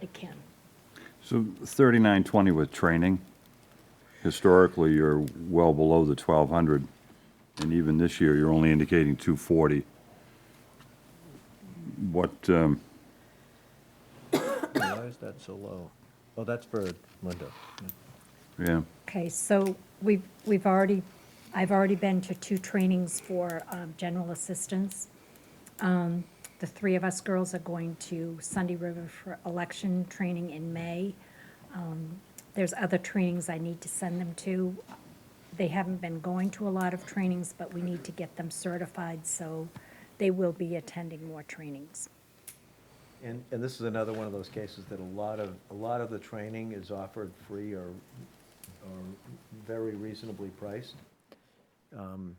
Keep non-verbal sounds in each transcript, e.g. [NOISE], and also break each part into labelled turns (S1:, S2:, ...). S1: It can.
S2: So 3920 with training, historically, you're well below the 1,200, and even this year, you're only indicating 240. What, um,
S3: Why is that so low? Oh, that's for Linda.
S2: yeah,
S1: Okay, so we've, we've already, I've already been to two trainings for um, general assistance. Um, The three of us girls are going to Sunday River for election training in May. Um, There's other trainings I need to send them to. They haven't been going to a lot of trainings, but we need to get them certified, so they will be attending more trainings.
S3: And, and this is another one of those cases that a lot of, a lot of the training is offered free or, or very reasonably priced. Um,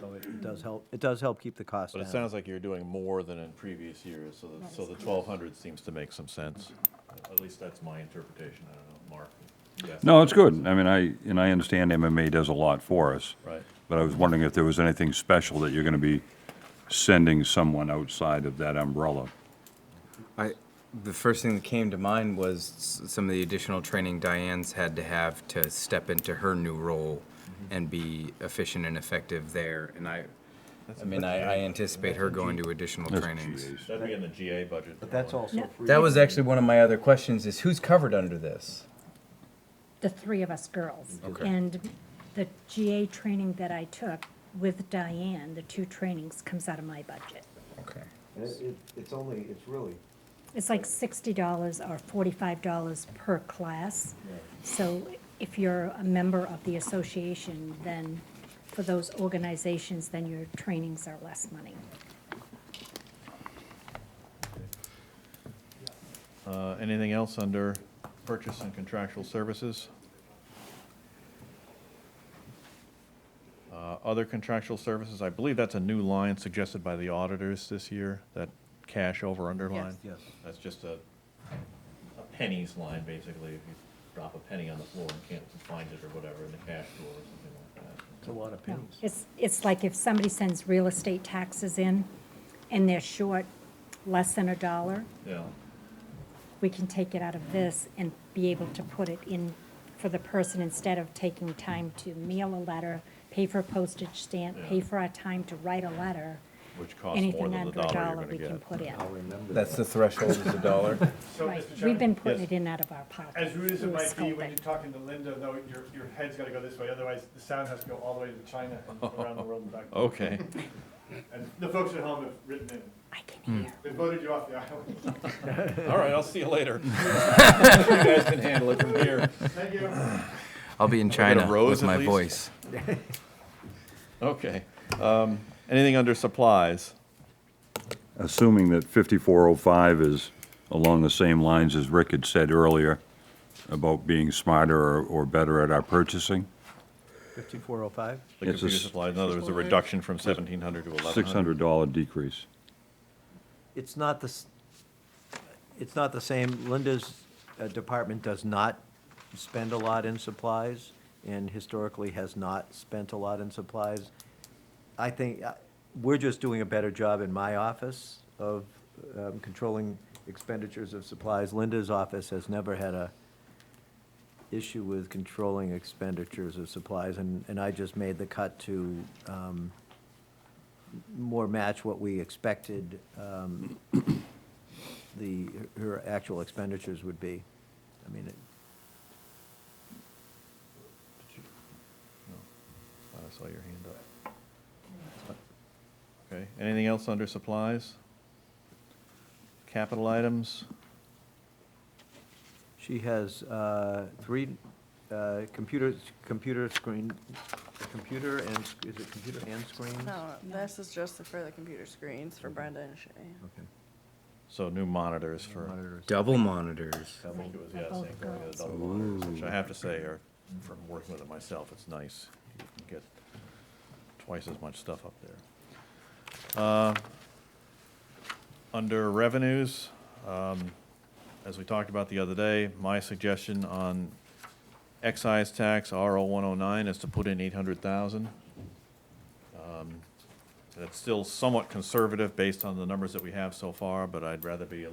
S3: So it does help, it does help keep the cost
S4: But
S3: down.
S4: it sounds like you're doing more than in previous years, so, the- so the twelve hundred seems to make some sense. At least that's my interpretation, I don't know, Mark. yes,
S2: no, it's good. I mean, I, and I understand MMA does a lot for us.
S4: Right.
S2: But I was wondering if there was anything special that you're going to be sending someone outside of that umbrella.
S5: I, the first thing that came to mind was s- some of the additional training Diane's had to have to step into her new role and be efficient and effective there. And I, I mean, I, I anticipate her going to additional
S2: That's
S5: trainings.
S2: GAs.
S4: That'd be in the GA budget.
S3: But that's
S4: all.
S3: also free.
S5: That was actually one of my other questions: is who's covered under this?
S1: the three of us girls.
S5: Okay.
S1: And the GA training that I took with Diane, the two trainings, comes out of my budget.
S5: Okay.
S3: And it- it- It's only, it's really,
S1: It's like sixty dollars or forty-five dollars per class. So if you're a member of the association, then for those organizations, then your trainings are less money.
S4: Uh, anything else under purchase and contractual services? Uh, other contractual services, I believe that's a new line suggested by the auditors this year, that cash over underline.
S3: Yes. Yes.
S4: That's just a, a pennies line, basically, if you drop a penny on the floor and can't find it or whatever in the cash drawer or something like that.
S3: it's a lot of
S1: No,
S3: pennies.
S1: It's, it's like if somebody sends real estate taxes in and they're short less than a dollar,
S4: Yeah,
S1: we can take it out of this and be able to put it in for the person instead of taking time to mail a letter, pay for a postage stamp, pay
S4: Yeah.
S1: for our time to write a letter.
S4: which costs more than
S1: Anything
S4: the dollar
S1: under
S4: you're
S1: a dollar
S4: gonna
S1: we can
S4: get.
S1: put in.
S3: I'll remember that.
S5: That's the threshold is a dollar.
S6: So,
S1: Right,
S6: Mr.
S1: we've been
S6: Chairman,
S1: putting
S4: Yes.
S1: it in out of our pocket.
S6: as rude as it
S1: We were
S6: might be, when
S1: sculpting.
S6: you're talking to Linda, though, your, your head's gotta go this way, otherwise the sound has to go all the way to China and around the world and back.
S4: Okay,
S6: And the folks at home have written in,
S1: I can hear.
S6: they voted you off the [LAUGHS] island.
S4: [LAUGHS] all right, I'll see you [LAUGHS] later. You guys can handle it from here.
S6: Thank you.
S5: [LAUGHS] I'll be in
S4: get a
S5: China
S4: rose
S5: with
S4: at
S5: my
S4: least?
S5: voice.
S4: Okay, um, anything under supplies?
S2: Assuming that 5405 is along the same lines as Rick had said earlier about being smarter or- or better at our purchasing,
S3: 5405?
S4: The
S2: It's a
S4: computer
S2: s-
S4: supplies, in other words, a reduction from seventeen hundred to eleven hundred.
S2: $600 decrease.
S3: It's not the, s- it's not the same, Linda's uh, department does not spend a lot in supplies, and historically has not spent a lot in supplies. I think, uh, we're just doing a better job in my office of um, controlling expenditures of supplies. Linda's office has never had a issue with controlling expenditures of supplies, and, and I just made the cut to, um, more match what we expected um, the, her actual expenditures would be. I mean, it-
S4: Thought I saw your hand up. Okay, anything else under supplies? Capital items?
S3: she has uh, three uh, computers, computer screen, computer and, sc- is it computer and screens?
S7: No, this is just for the computer screens for Brenda and Shay.
S3: Okay.
S4: So new monitors for,
S3: Monitors.
S5: Double monitors.
S4: I think it was,
S1: For
S4: yeah,
S1: both
S4: same thing, we had
S1: girls.
S4: double monitors, which I have to say are, from working with it myself, it's nice. You can get twice as much stuff up there. Uh, Under revenues, um, as we talked about the other day, my suggestion on excise tax, RO 109, is to put in 800,000. Um, That's still somewhat conservative based on the numbers that we have so far, but I'd rather be a